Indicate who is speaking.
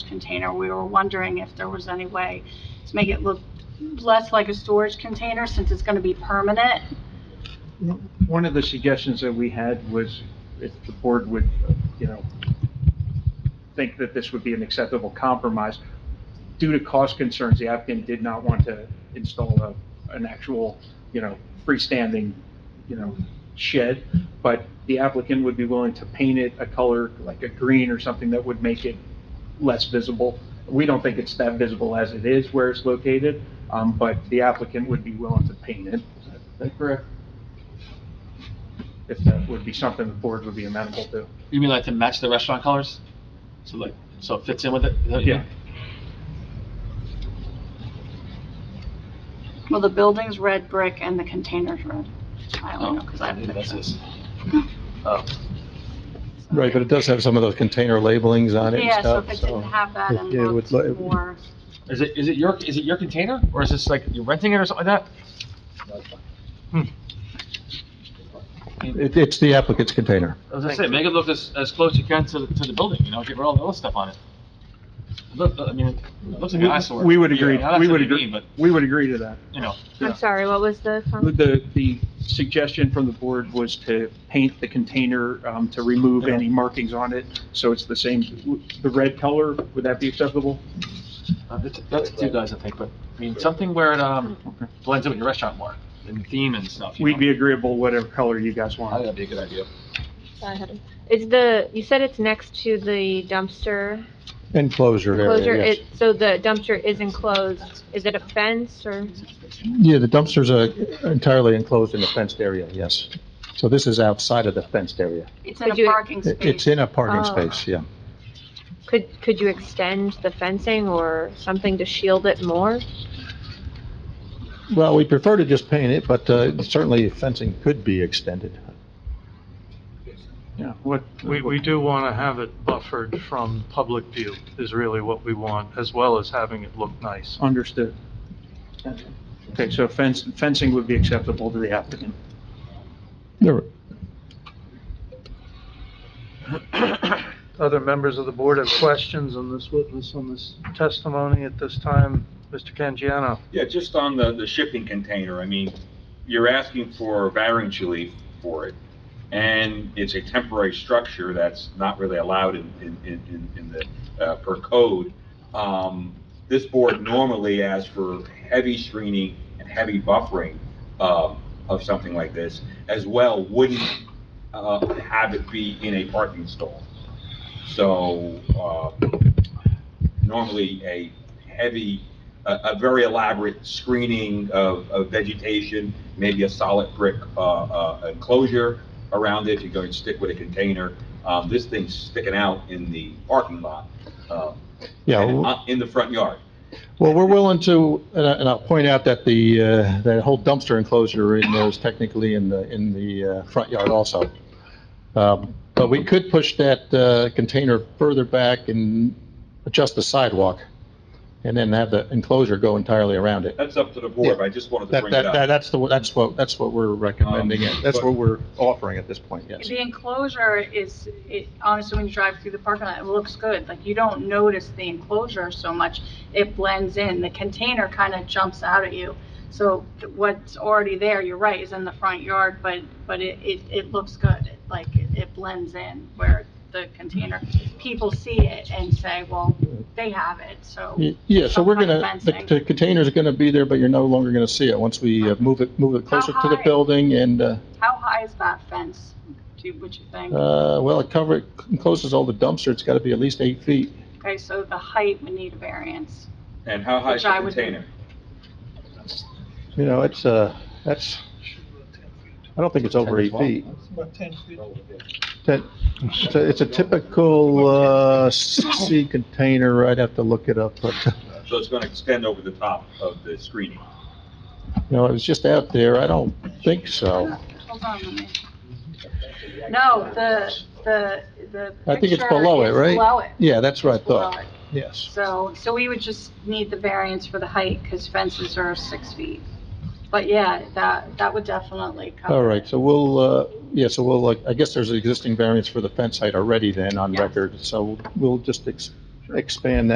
Speaker 1: container. We were wondering if there was any way to make it look less like a storage container since it's going to be permanent.
Speaker 2: One of the suggestions that we had was if the board would, you know, think that this would be an acceptable compromise, due to cost concerns, the applicant did not want to install a, an actual, you know, freestanding, you know, shed, but the applicant would be willing to paint it a color, like a green or something that would make it less visible. We don't think it's that visible as it is where it's located, um, but the applicant would be willing to paint it. Is that correct? if that would be something the board would be amenable to.
Speaker 3: You mean like to match the restaurant colors? So like, so it fits in with it? Is that what you mean?
Speaker 1: Well, the building's red brick and the container's red. I
Speaker 3: Oh,
Speaker 1: don't know, because I haven't
Speaker 3: That's
Speaker 1: pictured it.
Speaker 3: this. Oh,
Speaker 4: Right, but it does have some of those container labelings on it and
Speaker 1: Yeah, so if
Speaker 4: stuff,
Speaker 1: it
Speaker 4: so.
Speaker 1: didn't have that and
Speaker 4: Yeah, it would
Speaker 1: looked
Speaker 4: look-
Speaker 1: more,
Speaker 3: is it, is it your, is it your container? Or is this like, you're renting it or something like that?
Speaker 4: It, it's the applicant's container.
Speaker 3: As I say, make it look as, as close you can to, the- to the building, you know, get rid of all the other stuff on it. Look, I mean, it looks like an eyesore.
Speaker 2: We would
Speaker 3: Yeah,
Speaker 2: agree,
Speaker 3: that's
Speaker 2: we
Speaker 3: what
Speaker 2: would
Speaker 3: you
Speaker 2: agree,
Speaker 3: mean, But,
Speaker 2: we would agree to that.
Speaker 3: you know,
Speaker 2: Yeah.
Speaker 5: I'm sorry, what was the comment?
Speaker 2: The, the suggestion from the board was to paint the container, um, to remove any markings on it, so it's the same, the red color, would that be acceptable?
Speaker 3: uh, that's, that's two guys, I think, but, I mean, something where it, um, blends in with your restaurant more, and the theme and stuff, you
Speaker 2: We'd
Speaker 3: know?
Speaker 2: be agreeable whatever color you guys
Speaker 3: I think
Speaker 2: want.
Speaker 3: that'd be a good idea.
Speaker 5: Sorry, I had it. Is the, you said it's next to the dumpster
Speaker 4: Enclosure
Speaker 5: closure,
Speaker 4: area, yes.
Speaker 5: it, so the dumpster is enclosed, is it a fence or?
Speaker 4: Yeah, the dumpster's uh, entirely enclosed in a fenced area, yes. So this is outside of the fenced area.
Speaker 1: it's in
Speaker 5: Could
Speaker 1: a
Speaker 5: you-
Speaker 1: parking
Speaker 4: It- It's
Speaker 1: space.
Speaker 4: in a parking
Speaker 5: Oh.
Speaker 4: space, yeah.
Speaker 5: Could, could you extend the fencing or something to shield it more?
Speaker 4: Well, we prefer to just paint it, but uh, certainly fencing could be extended.
Speaker 2: Yeah, what,
Speaker 6: We, we do want to have it buffered from public view is really what we want, as well as having it look nice.
Speaker 2: understood. Okay, so fence, fencing would be acceptable to the applicant.
Speaker 4: There-
Speaker 6: Other members of the board have questions on this witness, on this testimony at this time? Mr. Canjiano?
Speaker 7: Yeah, just on the, the shipping container, I mean, you're asking for variance relief for it, and it's a temporary structure that's not really allowed in, in, in, in- in the, uh, per code. Um, this board normally asks for heavy screening and heavy buffering, um, of something like this, as well, wouldn't, uh, have it be in a parking stall. So, uh, normally a heavy, a, a very elaborate screening of, of vegetation, maybe a solid brick, uh, uh, enclosure around it, you're going to stick with a container. Um, this thing's sticking out in the parking lot, um,
Speaker 4: Yeah,
Speaker 7: and,
Speaker 4: w-
Speaker 7: uh, in the front yard.
Speaker 4: Well, we're willing to, and I- and I'll point out that the, uh, that whole dumpster enclosure in there is technically in the, in the uh, front yard also. Um, But we could push that uh, container further back and adjust the sidewalk, and then have the enclosure go entirely around it.
Speaker 7: That's up to the
Speaker 4: Yeah.
Speaker 7: board, but I just wanted to
Speaker 4: That,
Speaker 7: bring Um,
Speaker 4: that,
Speaker 7: it
Speaker 4: that-
Speaker 7: up.
Speaker 4: that's the, that's what, that's what we're recommending, and that's what we're offering at this point, yes.
Speaker 1: The enclosure is, it, honestly, when you drive through the parking lot, it looks good. Like, you don't notice the enclosure so much. It blends in. The container kind of jumps out at you. So what's already there, you're right, is in the front yard, but, but it, it, it looks good. It- Like, it it blends in where the container, people see it and say, well, they have it, so.
Speaker 4: Y- Yeah, so we're gonna, the
Speaker 1: Fencing.
Speaker 4: the container's gonna be there, but you're no longer gonna see it once we uh, move it, move it closer to the
Speaker 1: high?
Speaker 4: building and, uh,
Speaker 1: How high is that fence? Do you, would you think?
Speaker 4: Uh, well, it cover, it encloses all the dumpster, it's gotta be at least eight feet.
Speaker 1: Okay, so the height would need a variance.
Speaker 7: And how high is
Speaker 1: Which I
Speaker 7: the
Speaker 1: would-
Speaker 7: container?
Speaker 4: You know, it's, uh, that's, I don't think it's over eight feet. Ten, it's a- it's a typical, uh, sea container, I'd have to look it up, but,
Speaker 7: So it's gonna extend over the top of the screening.
Speaker 4: you know, it was just out there, I don't think so.
Speaker 1: Hold on, let me. No, the, the, the.
Speaker 4: I think it's
Speaker 1: picture
Speaker 4: below it,
Speaker 1: is
Speaker 4: right?
Speaker 1: Below it.
Speaker 4: Yeah, that's what I
Speaker 1: It's below
Speaker 4: thought,
Speaker 1: it.
Speaker 4: yes.
Speaker 1: So, so we would just need the variance for the height because fences are six feet. But yeah, that, that would definitely cover.
Speaker 4: All
Speaker 1: it.
Speaker 4: right, so we'll, uh, yeah, so we'll, like, I guess there's an existing variance for the fence height already then on
Speaker 1: Yes.
Speaker 4: record, so we'll just ex- expand that.